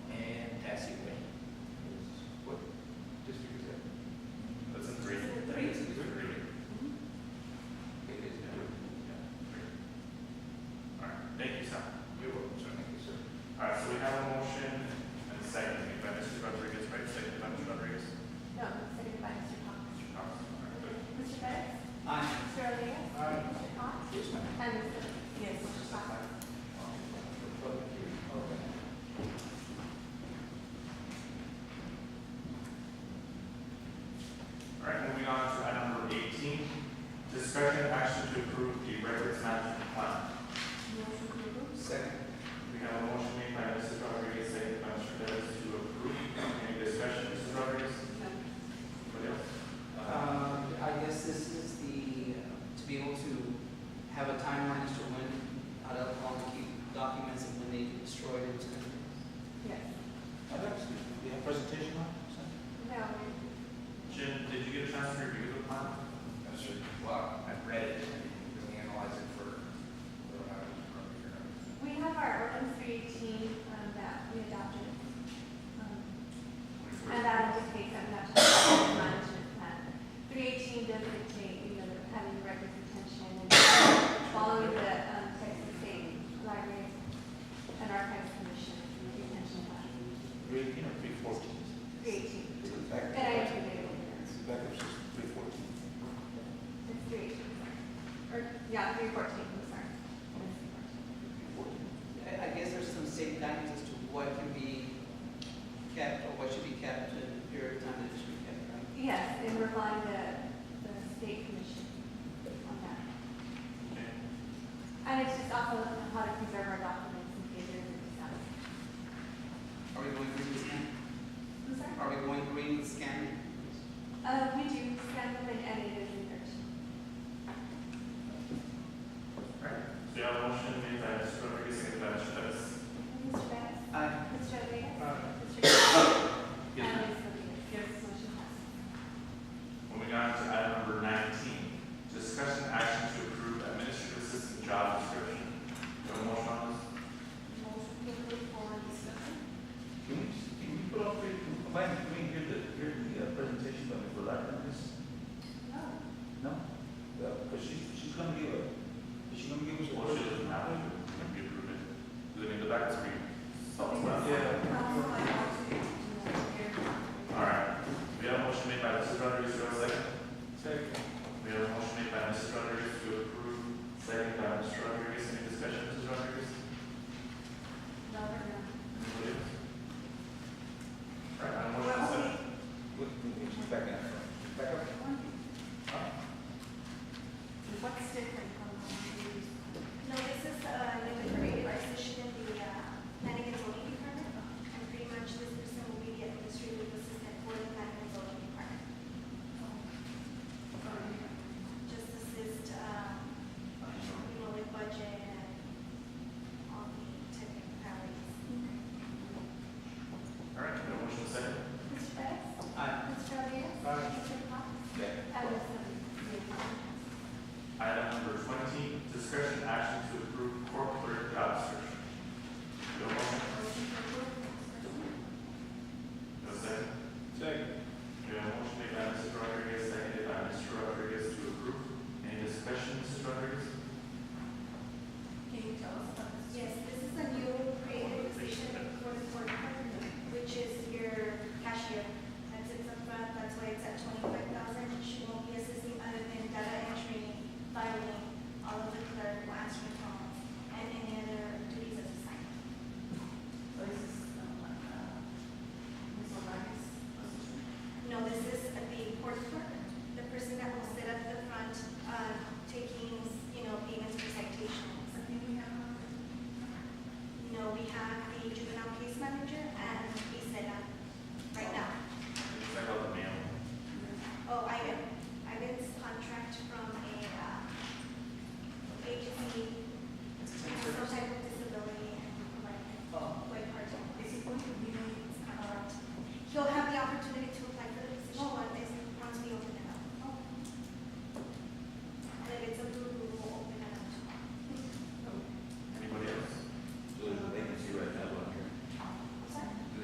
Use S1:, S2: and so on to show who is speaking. S1: Uh,
S2: down here, do the plan?
S3: That's your block.
S2: I've read it.
S3: We analyze it for, for how it's from here.
S4: We have our ordinance three eighteen, um, that we adopted. um, And that indicates that we have to have a management plan. Three eighteen does dictate, you know, the having the records retention and following the, um, Texas State Library and Archives Commission, and the retention plan,
S2: Three, you know, three fourteen.
S4: three eighteen.
S5: It's a
S4: And
S5: backup.
S4: I have to get it over.
S5: It's a backup system, three fourteen.
S4: It's three eighteen, or, yeah, three fourteen, I'm sorry. It's 314.
S1: I I guess there's some state guidance as to what can be kept or what should be kept and the period of time that it should be kept, right?
S4: Yes, and we're following the, the state commission on that. And it's just also how to preserve our documents in case there's a disaster.
S1: Are we going through the scan?
S4: I'm sorry?
S1: Are we going through the scan?
S4: Uh, we do send them and edit it in there.
S2: So you have a motion made by Mr. Rodriguez, seconded by Mr. Perez.
S4: Mr. Betts?
S1: Aye.
S4: Mr.
S2: Aye.
S4: Rodriguez? Mr. Yes.
S2: Uh, Yes, ma'am.
S4: And Ms. Rodriguez? Yes. Motion passes.
S2: Moving on to item number nineteen, discussion action to approve administrative assistant job description. Do you have a motion on this?
S4: Motion to approve for discussion.
S5: Can we, can we put up, the- Mike, can we hear the, hear the uh, presentation by Ms. Black on this?
S4: No.
S5: No? Because she's, she's gonna give a, is she gonna give us a?
S2: Well, she doesn't have to, it can be approved. Do they need the back screen?
S4: Oh,
S2: Oh,
S5: Yeah.
S4: Um, I have to do that here.
S2: All right, we have a motion made by Mrs. Rodriguez, do I have a second? Second. We have a motion made by Mrs. Rodriguez to approve, second by Mr. Rodriguez, any discussion, Mrs. Rodriguez?
S4: No,
S2: Anybody
S4: we're
S2: else? All right, I'm
S4: not.
S2: motion
S4: Well,
S2: second.
S5: What, she's back out. Back up?
S4: What's different from the previous?
S6: No, this is a new created position in the uh, planning and zoning department. And pretty much this person will be the administrative assistant for the planning and zoning department. Just assist, um, you know, with budget and all the technicalities.
S2: All right, we have a motion second.
S4: Mr. Betts?
S1: Aye.
S4: Mr. Rodriguez?
S2: Aye.
S4: Mr. Cox?
S5: Yeah.
S4: And Ms. Rodriguez?
S2: Item number twenty, discussion action to